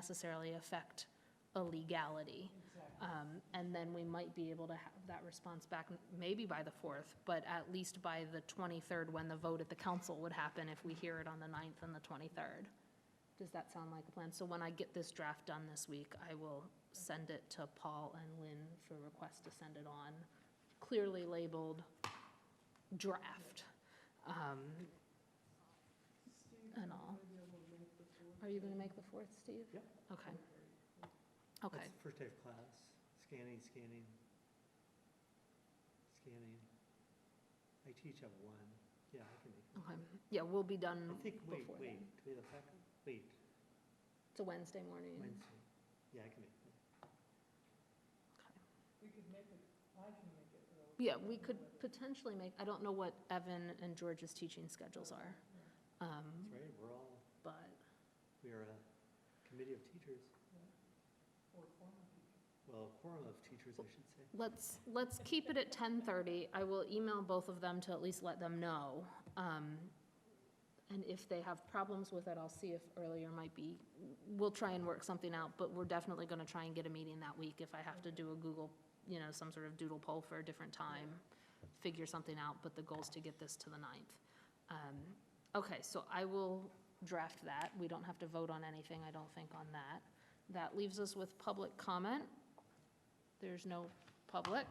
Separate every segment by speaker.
Speaker 1: necessarily affect a legality. Um, And then we might be able to have that response back, maybe by the 4th, but at least by the 23rd, when the vote at the council would happen, if we hear it on the 9th and the 23rd. Does that sound like a plan? So when I get this draft done this week, I will send it to Paul and Lynn for request to send it on, clearly labeled draft, um, and all. Are you going to make the 4th, Steve?
Speaker 2: Yep.
Speaker 1: Okay. Okay.
Speaker 2: That's the First day of class, scanning, scanning, scanning. I teach at one, yeah, I can make
Speaker 1: Okay, yeah, we'll be done
Speaker 2: it. I think,
Speaker 1: Mm-hmm.
Speaker 2: wait,
Speaker 1: before
Speaker 2: wait,
Speaker 1: then.
Speaker 2: do we have a second? Wait,
Speaker 1: It's a Wednesday morning.
Speaker 2: Wednesday, yeah, I can make it.
Speaker 1: Yeah, we could potentially make, I don't know what Evan and George's teaching schedules are, um,
Speaker 2: That's right, we're all,
Speaker 1: but,
Speaker 2: we are a committee of teachers. Or quorum of teachers. Well, a quorum of teachers, I should say.
Speaker 1: Let's, let's keep it at 10:30. I will email both of them to at least let them know. Um, And if they have problems with it, I'll see if earlier might be, we'll try and work something out, but we're definitely going to try and get a meeting that week if I have to do a Google, you know, some sort of doodle poll for a different time, figure something out, but the goal's to get this to the 9th. Um, Okay, so I will draft that. We don't have to vote on anything, I don't think, on that. That leaves us with public comment. There's no public.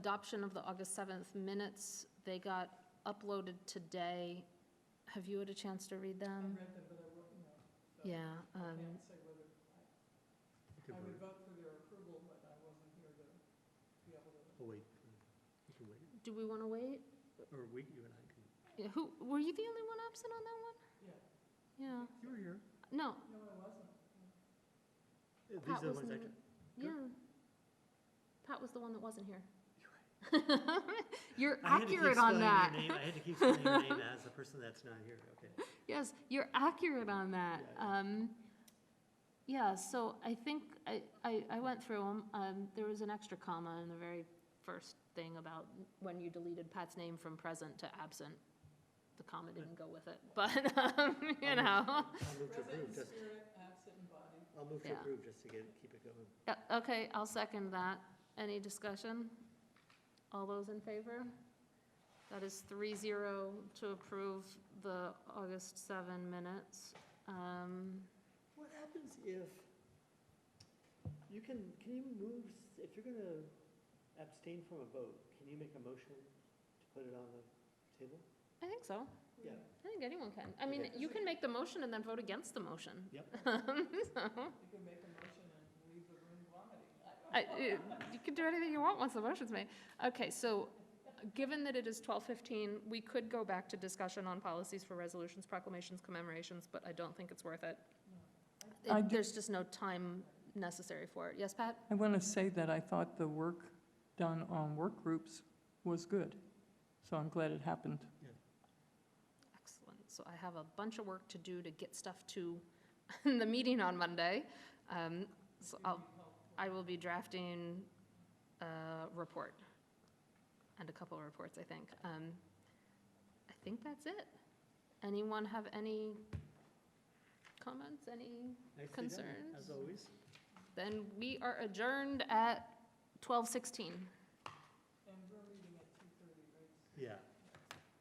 Speaker 1: Adoption of the August 7th minutes, they got uploaded today. Have you had a chance to read them? I read them, but I wouldn't know. Um, Yeah. um,
Speaker 2: You can vote. Oh, wait, you can wait,
Speaker 1: Do we want to wait?
Speaker 2: or we, you and I can.
Speaker 1: Yeah, Who, were you the only one absent on that one? Yeah.
Speaker 2: You were here.
Speaker 1: Yeah, no,
Speaker 2: Uh, These
Speaker 1: Pat
Speaker 2: are the
Speaker 1: was,
Speaker 2: ones I
Speaker 1: in-
Speaker 2: took.
Speaker 1: yeah. Pat was the one that wasn't here.
Speaker 2: You're right.
Speaker 1: You're
Speaker 2: I had to keep
Speaker 1: accurate on
Speaker 2: spelling your
Speaker 1: that.
Speaker 2: name- I had to keep spelling your name as the person that's not here, okay.
Speaker 1: Yes, you're accurate on that.
Speaker 2: Yeah, yeah.
Speaker 1: Um, yeah, so I think, I, I, I went through them, um, there was an extra comma in the very first thing about when you deleted Pat's name from present to absent. The comma didn't go with it, but, um, you know.
Speaker 2: I'll move to approve, just. I'll move to
Speaker 1: Yeah.
Speaker 2: approve, just to get, keep it going.
Speaker 1: Yeah, okay, I'll second that. Any discussion? All those in favor? That is three zero to approve the August seven minutes. Um,
Speaker 2: What happens if, you can, can you move, s- if you're gonna abstain from a vote, can you make a motion to put it on the table?
Speaker 1: I think so.
Speaker 2: Yeah.
Speaker 1: I think anyone can. I mean,
Speaker 2: Okay.
Speaker 1: you can make the motion and then vote against the motion.
Speaker 2: Yep.
Speaker 1: So,
Speaker 3: You can make a motion and leave the room vomiting.
Speaker 1: I- it- You can do anything you want once the motion's made. Okay, so, given that it is 12:15, we could go back to discussion on policies for resolutions, proclamations, commemorations, but I don't think it's worth it.
Speaker 4: No. I
Speaker 1: It-
Speaker 4: do-
Speaker 1: There's just no time necessary for it. Yes, Pat?
Speaker 4: I want to say that I thought the work done on work groups was good, so I'm glad it happened.
Speaker 1: Excellent. So I have a bunch of work to do to get stuff to the meeting on Monday. Um, So I'll, I will be drafting a report and a couple of reports, I think. Um, I think that's it. Anyone have any comments, any?
Speaker 2: Nicely done,
Speaker 1: Concerns?
Speaker 2: As always.
Speaker 1: Then we are adjourned at 12:16.
Speaker 3: And we're meeting at two thirty, right?
Speaker 2: Yeah.